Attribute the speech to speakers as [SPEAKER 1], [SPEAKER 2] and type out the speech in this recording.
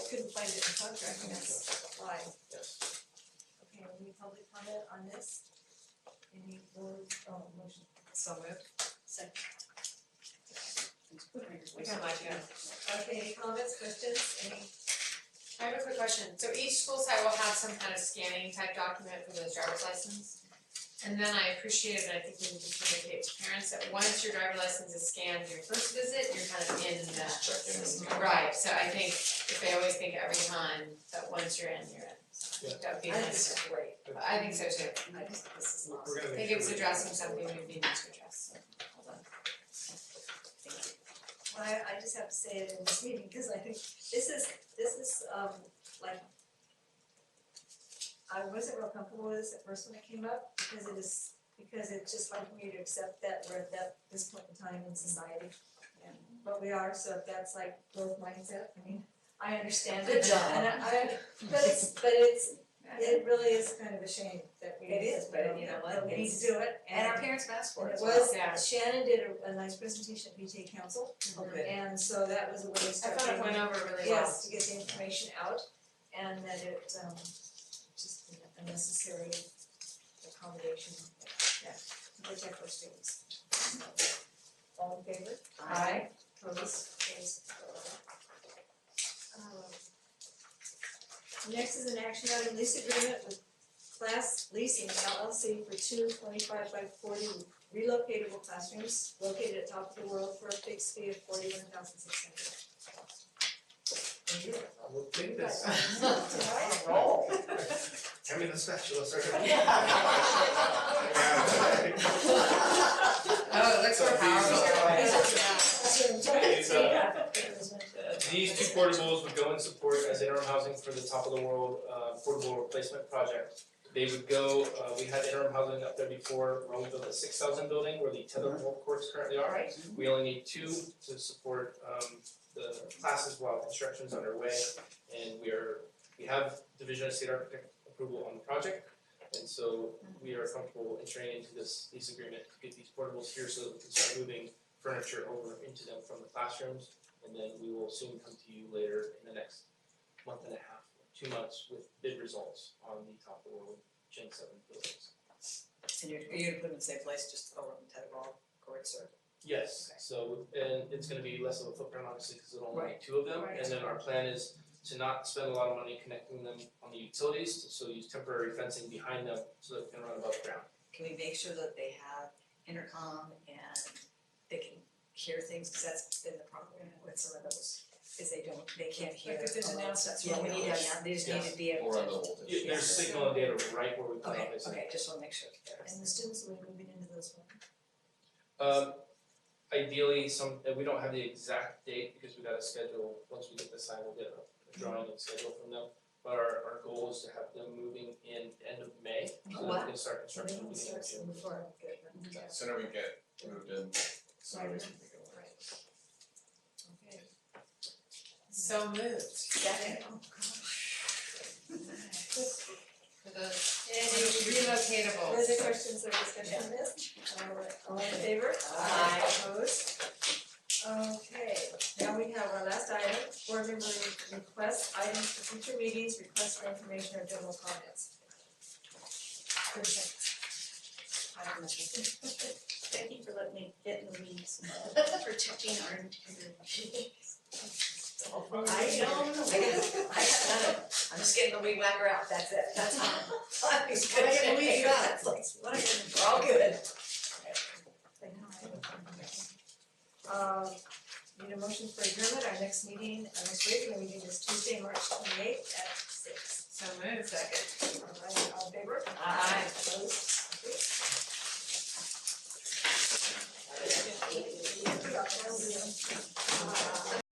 [SPEAKER 1] couldn't find it in the contract, that's why.
[SPEAKER 2] Yes.
[SPEAKER 1] Okay, any public comment on this? Any board, oh, motion,
[SPEAKER 3] So moved.
[SPEAKER 1] second. We got my turn. Okay, any comments, questions, any,
[SPEAKER 3] I have a quick question. So each school site will have some kind of scanning type document for those driver's license. And then I appreciated, and I think we need to communicate to parents that once your driver's license is scanned, your first visit, you're kind of in the
[SPEAKER 2] Just check in
[SPEAKER 3] system.
[SPEAKER 2] and-
[SPEAKER 3] Right, so I think if they always think every time that once you're in, you're in. So
[SPEAKER 4] Yeah.
[SPEAKER 3] That would be
[SPEAKER 1] I think
[SPEAKER 3] nice.
[SPEAKER 1] it's great,
[SPEAKER 3] I think so too.
[SPEAKER 1] I just, think this is awesome.
[SPEAKER 4] We're gonna
[SPEAKER 3] I
[SPEAKER 4] make
[SPEAKER 3] think
[SPEAKER 4] sure
[SPEAKER 3] it was
[SPEAKER 4] we-
[SPEAKER 3] addressing something we needed to address, so hold on.
[SPEAKER 1] Well, I I just have to say it in this meeting, cause I think this is, this is um like I wasn't real comfortable with this at first when it came up, because it is, because it's just like me to accept that we're at that, this point in time in society. And but we are, so if that's like growth mindset, I mean, I understand it,
[SPEAKER 3] Good job.
[SPEAKER 1] and I I- but it's, but it's, it really is kind of a shame that we.
[SPEAKER 5] It is, but you know what,
[SPEAKER 1] that We need
[SPEAKER 5] it's-
[SPEAKER 1] to do it,
[SPEAKER 5] And our
[SPEAKER 1] and
[SPEAKER 5] parents asked for it.
[SPEAKER 1] it
[SPEAKER 5] as well.
[SPEAKER 1] was,
[SPEAKER 3] Yeah.
[SPEAKER 1] Shannon did a a nice presentation at BJ Council,
[SPEAKER 5] Oh, good.
[SPEAKER 1] and so that was a way to
[SPEAKER 3] I
[SPEAKER 1] start.
[SPEAKER 3] thought it
[SPEAKER 1] getting-
[SPEAKER 3] went over really well.
[SPEAKER 1] Yes, to get the information out and that it um just a necessary accommodation yeah, to protect our students. All in favor?
[SPEAKER 3] Aye.
[SPEAKER 1] Opposed? Carries. Um, Next is an action item lease agreement with Class Leasing LLC for two twenty-five by forty relocatable classrooms located at top of the world for a fixed fee of forty-one thousand six hundred.
[SPEAKER 4] I will do this. Tell me the spatula, sir.
[SPEAKER 3] Oh, it looks so
[SPEAKER 2] So these
[SPEAKER 3] powerful.
[SPEAKER 2] are-
[SPEAKER 4] It's, uh, These two portables would go in support as interim housing for the top of the world uh portable replacement project. They would go, uh we had interim housing up there before, when we built the six thousand building where the tether ball courts currently are. We only need two to support um the classes while construction's underway. And we are, we have Division of State Architect approval on the project. And so we are comfortable entering into this lease agreement to get these portables here so that we can start moving furniture over into them from the classrooms. And then we will soon come to you later in the next month and a half, two months with bid results on the top of the world Gen seven buildings.
[SPEAKER 5] And you're, you're gonna put them in the same place, just over on Tetherball courts or?
[SPEAKER 4] Yes,
[SPEAKER 5] Okay.
[SPEAKER 4] so and it's gonna be less of a footprint obviously because it'll only be two of them.
[SPEAKER 1] Right.
[SPEAKER 4] And then our plan is to not spend a lot of money connecting them on the utilities, so use temporary fencing behind them so that we can run above ground.
[SPEAKER 5] Can we make sure that they have intercom and they can hear things, cause that's been the problem with some of those, is they don't, they can't hear.
[SPEAKER 3] Like if there's
[SPEAKER 5] a lot of stuff.
[SPEAKER 3] announcements
[SPEAKER 5] Yeah, we need to have, now- they just need
[SPEAKER 4] Yes.
[SPEAKER 5] to be able
[SPEAKER 2] Or
[SPEAKER 5] to.
[SPEAKER 2] on the old.
[SPEAKER 4] Yeah, There's signal and data right where we put
[SPEAKER 5] Okay,
[SPEAKER 4] it, is
[SPEAKER 5] okay, just wanna make sure that there is.
[SPEAKER 1] And the students will be moving into those ones.
[SPEAKER 4] Um, ideally, some, uh, we don't have the exact date because we gotta schedule, once we get the sign, we'll get a drawing and schedule from them. But our, our goal is to have them moving in end of May, so that we can start
[SPEAKER 1] So
[SPEAKER 4] construction
[SPEAKER 1] they don't
[SPEAKER 4] beginning
[SPEAKER 1] start
[SPEAKER 4] of June.
[SPEAKER 1] some before I get them.
[SPEAKER 2] The Sooner we get moved in, the sooner we can think of it.
[SPEAKER 1] Okay.
[SPEAKER 3] So moved.
[SPEAKER 1] Second.
[SPEAKER 3] For those, any relocatable.
[SPEAKER 1] Further questions or discussion on this? All right, All in favor?
[SPEAKER 3] Aye.
[SPEAKER 1] Opposed? Okay, now we have our last item, board member requests, items for future meetings, requests for information or general comments. Perfect. I don't know.
[SPEAKER 6] Thank you for letting me get in the weeds, protecting our integrity.
[SPEAKER 1] I don't know.
[SPEAKER 5] I gotta, I got none of, it. I'm just getting the weed whacker out, that's it, that's all. I'm just
[SPEAKER 1] What
[SPEAKER 5] gonna
[SPEAKER 1] are you gonna
[SPEAKER 5] say.
[SPEAKER 1] weed out?
[SPEAKER 5] It's like,
[SPEAKER 1] What are you gonna
[SPEAKER 5] We're all good.
[SPEAKER 1] Um, need a motion for adjournment, our next meeting, our next regular meeting is Tuesday, March twenty eighth at six.
[SPEAKER 3] So moved. Second.
[SPEAKER 1] All right, all in favor?
[SPEAKER 3] Aye.
[SPEAKER 1] Opposed?